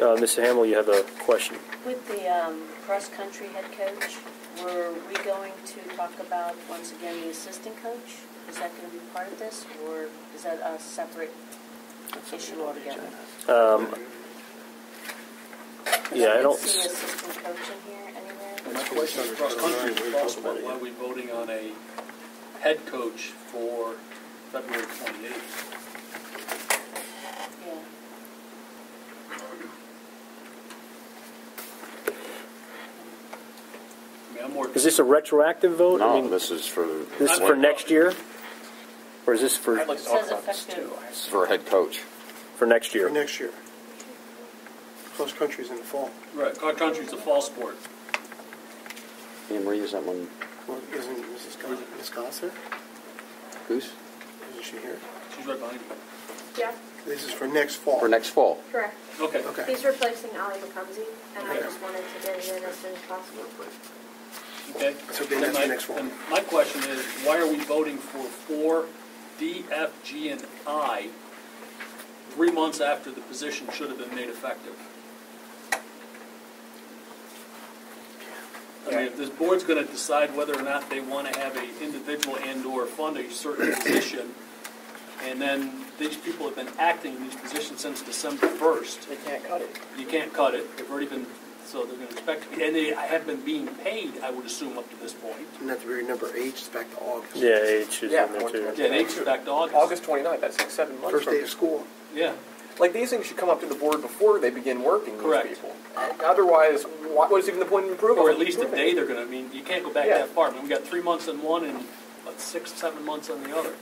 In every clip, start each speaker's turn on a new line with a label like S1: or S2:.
S1: Uh, Mr. Hamill, you have a question.
S2: With the um, cross-country head coach, were we going to talk about, once again, the assistant coach? Is that going to be part of this, or is that a separate issue altogether?
S1: Um, Yeah, I don't,
S2: didn't see assistant coach in here anywhere.
S3: My question is cross-country,
S4: We're
S3: cross-
S4: talking about why are we voting on a head coach for February 28th?
S2: Yeah.
S4: I mean, I'm more.
S1: is this a retroactive vote? I
S5: No,
S1: mean,
S5: this is for.
S1: This is for next year? Or is this for,
S4: I'd like to
S2: It
S4: talk
S2: says
S4: about this too.
S2: effective.
S5: This is for head coach.
S1: for next
S3: for
S1: year?
S3: next year. Cross-country's in the fall.
S4: Right, cross-country's a fall sport.
S5: Anne Marie, is that one,
S3: Well, Isn't Mrs. Goss- Ms. Goss there?
S5: who's?
S3: Isn't she here?
S4: She's right behind you.
S6: Yeah,
S3: This is for next fall.
S5: For next fall.
S6: correct.
S4: Okay.
S3: Okay.
S6: He's replacing Ali McCumsey, and I
S4: Okay.
S6: just wanted to get it in as soon as possible.
S4: Okay.
S3: So Dan,
S4: Then
S3: that's the
S4: my-
S3: next one.
S4: then My question is, why are we voting for four D, F, G, and I three months after the position should have been made effective? I mean, if this board's gonna decide whether or not they wanna have a individual and/or fund a certain position, and then these people have been acting in these positions since December first,
S7: They can't cut it.
S4: you can't cut it, they've already been, so they're gonna expect, and they have been being paid, I would assume, up to this point.
S3: And that's very number eight, it's back to August.
S1: Yeah, H is in
S7: Yeah,
S1: there too.
S4: Yeah, they expect August.
S7: August 29th, that's like seven months
S3: First
S7: from
S3: day of school.
S4: Yeah,
S7: Like, these things should come up to the board before they begin working, these
S4: Correct.
S7: people. Otherwise, why- what is even the point in improving?
S4: or at least a day they're gonna, I mean, you can't go back
S7: Yeah.
S4: that far, I mean, we got three months on one and, what, six, seven months on the other.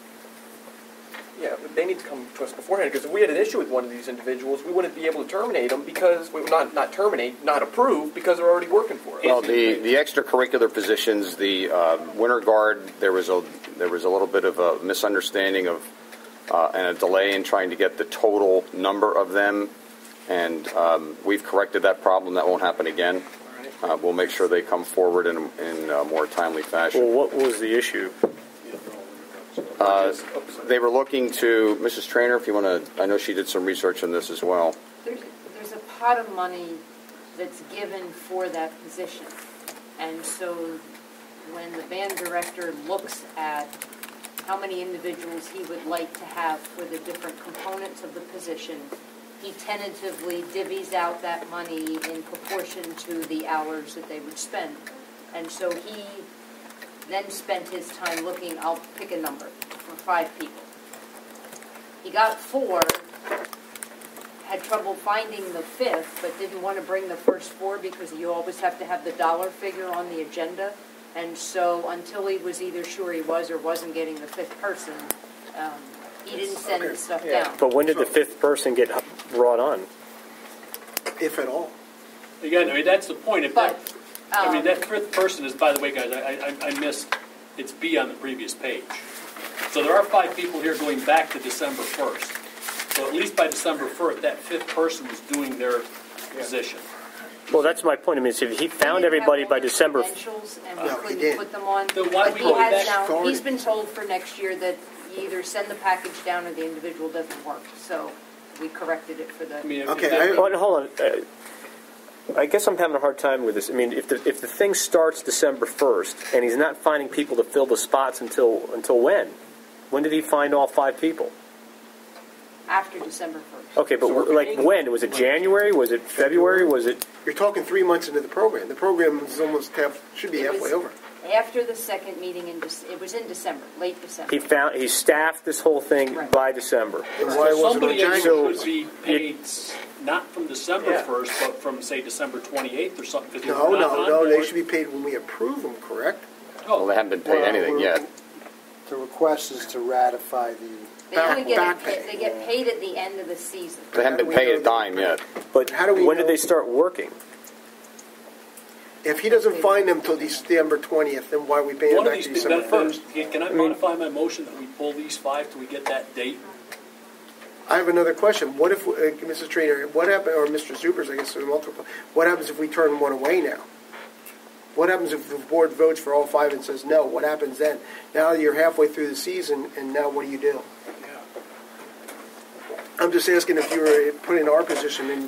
S7: Yeah, but they need to come to us beforehand, because if we had an issue with one of these individuals, we wouldn't be able to terminate them because, well, not, not terminate, not approve, because they're already working for us.
S5: Well, the, the extracurricular positions, the uh, winter guard, there was a, there was a little bit of a misunderstanding of, uh, and a delay in trying to get the total number of them. And um, we've corrected that problem. That won't happen again. Uh, We'll make sure they come forward in, in a more timely fashion.
S1: Well, what was the issue?
S5: Uh, They were looking to, Mrs. Trainer, if you want to, I know she did some research on this as well.
S8: There's, there's a pot of money that's given for that position. And so when the band director looks at how many individuals he would like to have for the different components of the position, he tentatively divvies out that money in proportion to the hours that they would spend. And so he then spent his time looking, I'll pick a number, for five people. He got four, had trouble finding the fifth, but didn't want to bring the first four because you always have to have the dollar figure on the agenda. And so until he was either sure he was or wasn't getting the fifth person, um, he didn't send the stuff
S7: Yeah.
S8: down.
S1: But when did the fifth person get brought on?
S3: If at all.
S4: Again, I mean, that's the point, if that,
S8: But,
S4: I mean,
S8: um,
S4: that fifth person is, by the way, guys, I, I, I missed, it's B on the previous page. So there are five people here going back to December first. So at least by December first, that fifth person was doing their position.
S1: Well, that's my point. I mean, if he found
S8: we have
S1: everybody
S8: all
S1: by
S8: the
S1: December,
S8: credentials and
S3: No, he
S8: we
S3: didn't.
S8: couldn't put them on.
S4: Then why
S8: But
S4: we
S8: he
S4: go
S8: has
S4: back-
S8: now,
S3: Sorry.
S8: he's been told for next year that you either send the package down or the individual doesn't work. So we corrected it for the.
S4: I mean, if-
S3: Okay,
S4: if that-
S3: I-
S1: Well, hold on. Uh, I guess I'm having a hard time with this. I mean, if the, if the thing starts December 1st and he's not finding people to fill the spots until until when? When did he find all five people?
S8: After December 1st.
S1: Okay, but w like when? Was it January? Was it February? Was it
S3: You're talking three months into the program. The program is almost half, should be
S8: It was-
S3: halfway over.
S8: After the second meeting in, Dec- it was in December, late December.
S1: he found he staffed this whole thing
S8: Right.
S1: by December?
S3: Then why wasn't it
S4: Somebody
S3: January?
S4: else should be paid, s- not from December
S7: Yeah.
S4: first, but from, say, December twenty-eighth or something. 'cause they
S3: No,
S4: were not
S3: no,
S4: on
S3: no, they
S4: board.
S3: should be paid when we approve them, correct?
S5: Well, they
S4: Oh,
S5: haven't been paid anything yet.
S9: The request is to ratify the,
S8: They only get,
S3: back pay.
S8: pa- they get paid at the end of the season.
S5: They haven't been paid a dime yet.
S1: But
S3: How do we
S1: when
S3: know-
S1: did they start working?
S3: If he doesn't find them till December twentieth, then why are we paying them
S4: one of
S3: back
S4: these,
S3: to
S4: things-
S3: December
S4: that
S3: first?
S4: first, can can I modify my motion that we pull these five till we get that date?
S3: I have another question. What if, uh, Mrs. Trainer, what happened, or Mr. Zupers, I guess, there are multiple, what happens if we turn one away now? What happens if the board votes for all five and says no? What happens then? Now you're halfway through the season, and now what do you do? I'm just asking if you were put in our position and